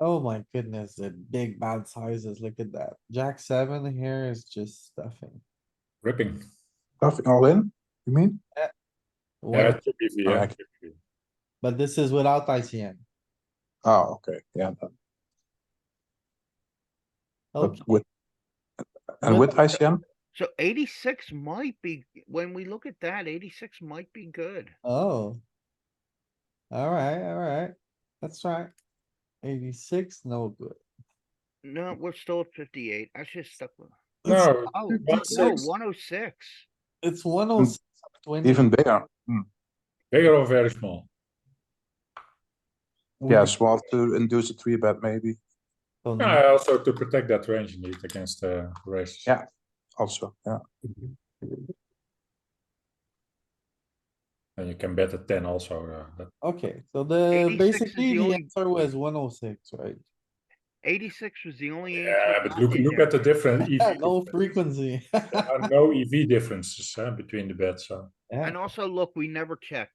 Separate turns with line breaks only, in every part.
Oh my goodness, the big bad sizes. Look at that. Jack seven here is just stuffing.
ripping.
Stuffing all in, you mean?
Yeah,
Well,
chip EV, yeah.
Alright.
chip EV.
But this is without ICM.
Oh, okay, yeah, that-
Okay,
but with. And with ICM,
So eighty-six might be, when we look at that, eighty-six might be good.
oh. Alright, alright. That's right. Eighty-six, no good.
Mm.
No, we're still at fifty-eight. I should have stuck with.
No,
Oh, no,
106.
one oh six.
It's one oh six twenty.
even bigger, Hmm.
bigger or very small.
yeah, swap to induce a three bet maybe,
Oh, So
Yeah,
no-
also to protect that range indeed against uh, races.
Yeah. also, yeah.
And you can bet a ten also, uh, that
Okay, so the,
86 is
basically
the
the
only-
answer was one oh six, right?
Eighty-six was the only. answer
Yeah, but
not
look,
in
look
there.
at the different EV.
No
difference.
frequency.
There are no EV differences uh, between the bets, so,
Yeah.
And also, look, we never checked.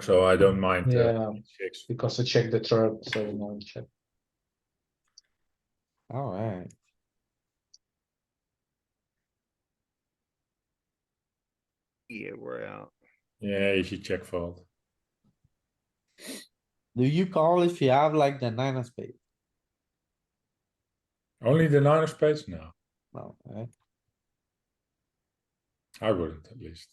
so I don't mind. uh,
Yeah.
six.
because I checked the turn, so no check.
Alright.
Yeah, we're out.
Yeah, easy check fold.
Do you call if you have like the nine of spades?
Only the nine of spades? No,
No, right?
I wouldn't at least.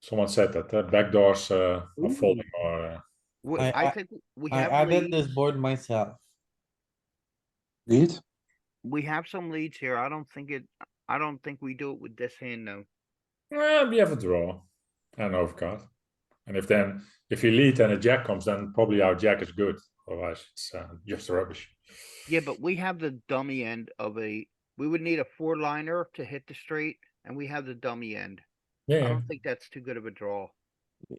Someone said that, uh, backdoors uh, are folding or, uh,
We-
I- I-
I think we
I
have
added this
leads.
board myself.
Lead,
We have some leads here. I don't think it, I don't think we do it with this hand though.
well, Eh, we have a draw and overcard. And if then, if you lead and a jack comes, then probably our jack is good, otherwise it's uh, just rubbish.
Yeah, but we have the dummy end of a, we would need a four liner to hit the straight and we have the dummy end. I
Yeah,
don't think that's too good of a draw.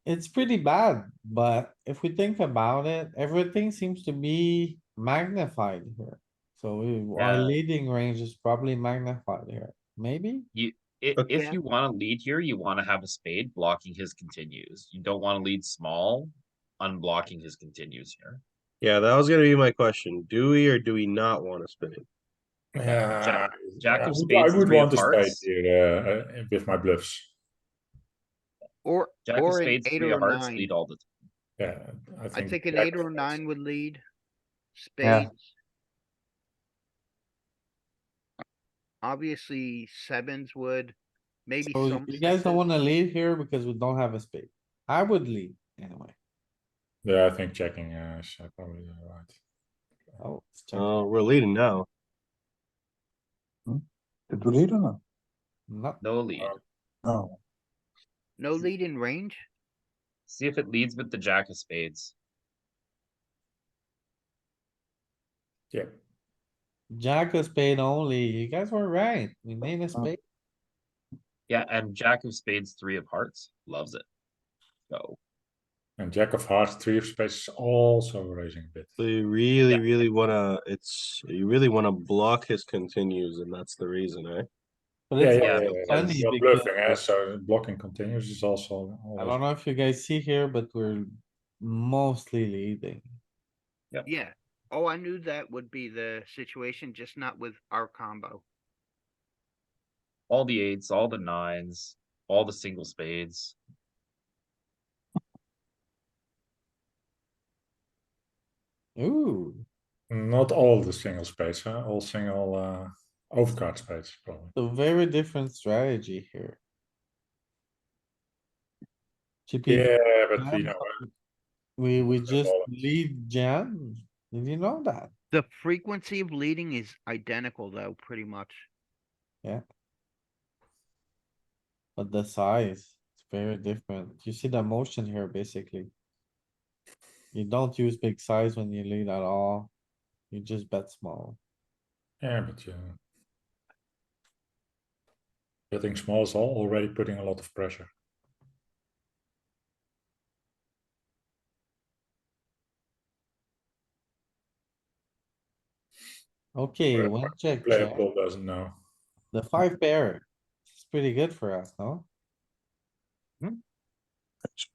It's pretty bad, but if we think about it, everything seems to be magnified here. So we- our
Yeah.
leading range is probably magnified here, maybe?
I-
Okay.
Yeah.
if you wanna lead here, you wanna have a spade blocking his continues. You don't wanna lead small, unblocking his continues here.
Yeah, that was gonna be my question. Do we or do we not want to spin it?
yeah.
Jack
I
of
would-
spades
I
and
would
three
want
of
a spade
hearts.
here uh, uh, with my bluffs.
Or,
Jack of
or an
spades,
eight
three
or a
of hearts
nine.
lead all the time.
Yeah, I
I
think.
think an
jack
eight
of
or a
spades.
nine would lead.
Yeah.
Spades. Obviously sevens would, maybe
So
some.
you guys don't
sixes.
wanna leave here because we don't have a spade. I would leave anyway.
Yeah, I think checking uh, is uh, probably uh, right.
Oh, it's check.
Oh, we're leading now.
did we lead or not?
Not-
No lead.
Uh-huh.
No,
No lead in range?
See if it leads with the jack of spades.
Yeah,
Jack of spade only. You guys were right. We need
Oh.
a spade.
Yeah, and jack of spades, three of hearts, loves it. Go.
and jack of hearts, three of spades is also raising a bit.
So you really, really wanna, it's, you really wanna block his continues and that's the reason, eh?
But
Yeah,
it's
yeah,
also
yeah, yeah,
funny
you're
because-
bluffing, eh, so blocking continues is also.
I
always-
don't know if you guys see here, but we're mostly leading.
Yeah. Oh, I knew that would be the situation, just not with our combo.
All the eights, all the nines, all the single spades.
Ooh,
Not all the single spades, huh? all single uh, overcard spades probably.
a very different strategy here. GP,
Yeah, but you
Yeah.
know, uh,
we, we just
all-
lead jam. Did you know that?
The frequency of leading is identical though, pretty much.
But the size, it's very different. You see the motion here, basically. You don't use big size when you lead at all. You just bet small.
yeah, but you. Betting small is al- already putting a lot of pressure.
Okay,
Right,
one check,
Player
check.
pool doesn't know.
The five pair. It's pretty good for us, no?
it's